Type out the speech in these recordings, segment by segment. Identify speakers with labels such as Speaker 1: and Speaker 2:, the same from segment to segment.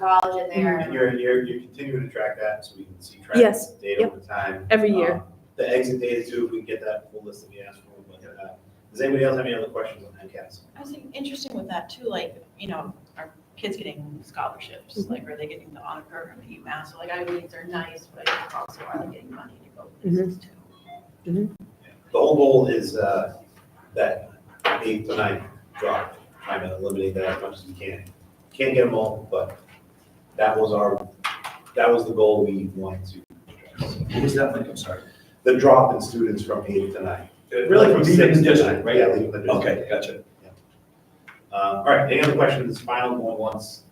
Speaker 1: college in
Speaker 2: Mm-hmm.
Speaker 1: there.
Speaker 3: And you're, you're, you're continuing to track that so we can see track
Speaker 2: Yes.
Speaker 3: data over time.
Speaker 2: Every year.
Speaker 3: Um, The exit data too, if we can get that full list that we asked for, we'll get that. Does anybody else have any other questions on MCAS?
Speaker 4: I was thinking, interesting with that too, like, you know, are kids getting scholarships? Like, are they getting the honor program at UMass? So, Like, I mean, they're nice, but also are they getting money to go places too?
Speaker 3: The whole goal is, uh, that eight to nine drop, trying to eliminate that as much as we can. Can't get them all, but that was our, that was the goal we wanted to address.
Speaker 5: What was that like? I'm sorry.
Speaker 3: The drop in students from eight to nine.
Speaker 5: Uh, Really from
Speaker 3: Six
Speaker 5: leaving the
Speaker 3: to
Speaker 5: district,
Speaker 3: nine, Yeah,
Speaker 5: right?
Speaker 3: leaving the district.
Speaker 5: Okay, gotcha.
Speaker 3: Uh, all right, any other questions, final going once?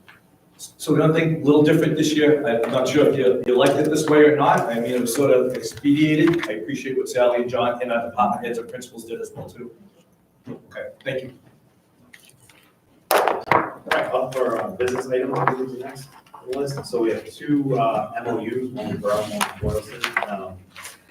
Speaker 5: So we don't think, a little different this year. I- I'm not sure if you, you liked it this way or not. I mean, it was sort of expedited. I appreciate what Sally and John and our department heads and principals did as well too. Okay, thank you.
Speaker 3: All right, up for uh, business item, we'll move to the next list. So we have two uh, MOUs, one for us, one for Boylston. Um,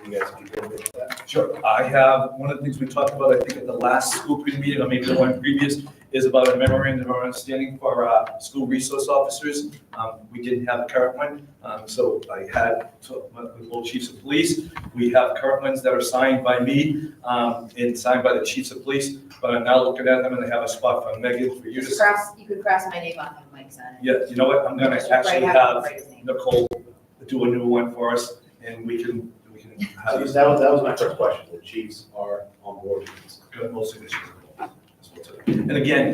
Speaker 3: You guys can go with that.
Speaker 5: Sure. I have, one of the things we talked about, I think at the last school committee meeting, or maybe the one previous, is about a memorandum of understanding for uh, school resource officers. Um, We didn't have the current one, um, so I had, to- with the little chiefs of police, we have current ones that are signed by me um, and signed by the chiefs of police, but I'm now looking at them and they have a spot for Megan, for you to
Speaker 1: Just
Speaker 5: sign.
Speaker 1: cross, you could cross my name off on Mike's on it.
Speaker 5: Yeah, you know what, I'm gonna
Speaker 1: Just write-
Speaker 5: actually
Speaker 1: have him
Speaker 5: have
Speaker 1: write his name.
Speaker 5: Nicole do a new one for us and we can, we can
Speaker 3: So
Speaker 5: have
Speaker 3: That was, that was my first question. The Chiefs are on board with this.
Speaker 5: got no signatures involved. That's what's up. And again,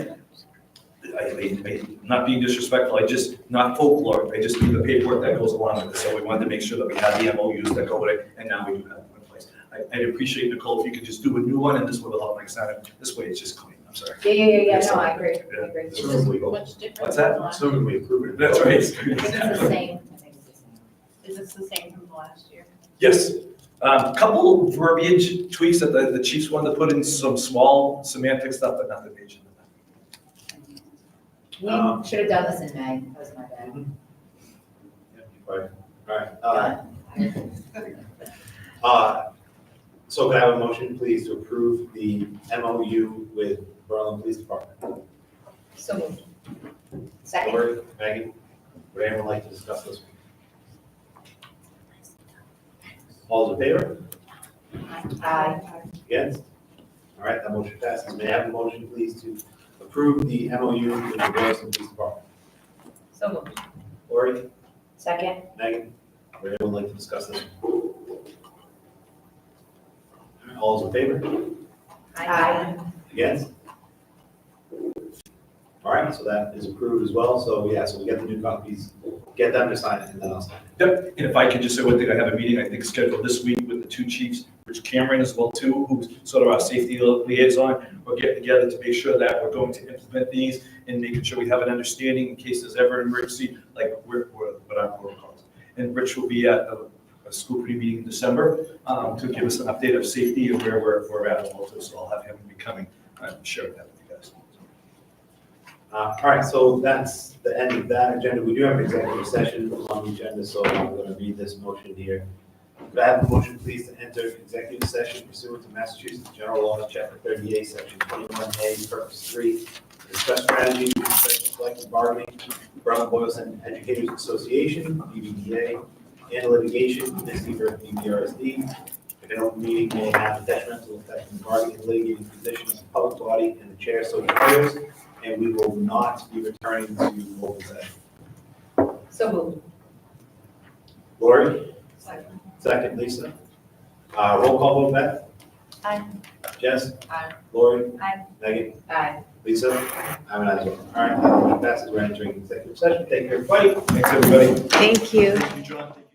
Speaker 5: I, I, I- not being disrespectful, I just, not folklore, I just need the paperwork that goes along with it. So we wanted to make sure that we had the MOUs that go with it, and now we do have them in place. I, I'd appreciate, Nicole, if you could just do a new one, and this would help make sense. This way it's just clean, I'm sorry.
Speaker 1: Yeah, yeah, yeah, yeah, no, I agree, I agree. It's
Speaker 3: This is legal.
Speaker 4: Much different.
Speaker 5: What's that?
Speaker 4: from last-
Speaker 3: Assuming we approve it.
Speaker 5: That's right.
Speaker 1: the same, I think it's the same.
Speaker 4: Is this the same from last year?
Speaker 5: Yes. Um, Couple verbiage tweaks that the the chiefs wanted to put in, some small semantic stuff, but nothing major.
Speaker 3: Um,
Speaker 1: We should have done this in May, that was my bad.
Speaker 3: Yeah, you're right. All right. uh, Uh, So can I have a motion, please, to approve the MOU with Berlin Police Department?
Speaker 1: So moved. Second.
Speaker 3: Lori, Megan, would anyone like to discuss this? All in favor?
Speaker 1: Aye.
Speaker 3: Against? All right, that motion passes. May I have a motion, please, to approve the MOU with the Boylston Police Department?
Speaker 1: So moved.
Speaker 3: Lori,
Speaker 1: Second.
Speaker 3: Megan, would anyone like to discuss this? All in favor?
Speaker 1: Aye.
Speaker 3: Against? All right, so that is approved as well. So, yeah, so we get the new copies, get them to sign it, and then I'll sign it.
Speaker 5: Yep, and if I could just say one thing, I have a meeting, I think scheduled this week with the two chiefs, Rich Cameron as well too, who's sort of our safety liaison. We're getting together to make sure that we're going to implement these and making sure we have an understanding in case there's ever an emergency, like we're, we're, what our protocol is. And Rich will be at the, a school committee meeting in December, um, to give us an update of safety and where we're, we're at also, so I'll have him be coming, uh, share that with you guys.
Speaker 3: Uh, all right, so that's the end of that agenda. We do have an executive session on the agenda, so I'm gonna read this motion here. Could I have a motion, please, to enter executive session pursuant to Massachusetts General Law, Chapter thirty-eight, Section twenty-one A, Purpose three, to discuss strategy with respect to collective bargaining, Brown Boylston Educators Association, BBDA, and litigation, this either BBRSD. If an open meeting may have a detrimental effect on the bargaining, litigating position of the public body and the chair so declares, and we will not be returning to open session.
Speaker 1: So moved.
Speaker 3: Lori,
Speaker 1: Second.
Speaker 3: second, Lisa. Uh, roll call vote, Beth?
Speaker 1: Aye.
Speaker 3: Jess?
Speaker 1: Aye.
Speaker 3: Lori?
Speaker 1: Aye.
Speaker 3: Megan?
Speaker 1: Aye.
Speaker 3: Lisa? I'm an aye. as well. All right, that passes, we're entering executive session. Thank you, everybody.
Speaker 5: Thanks, everybody.
Speaker 2: Thank you.
Speaker 5: Thank you, John. Thank you.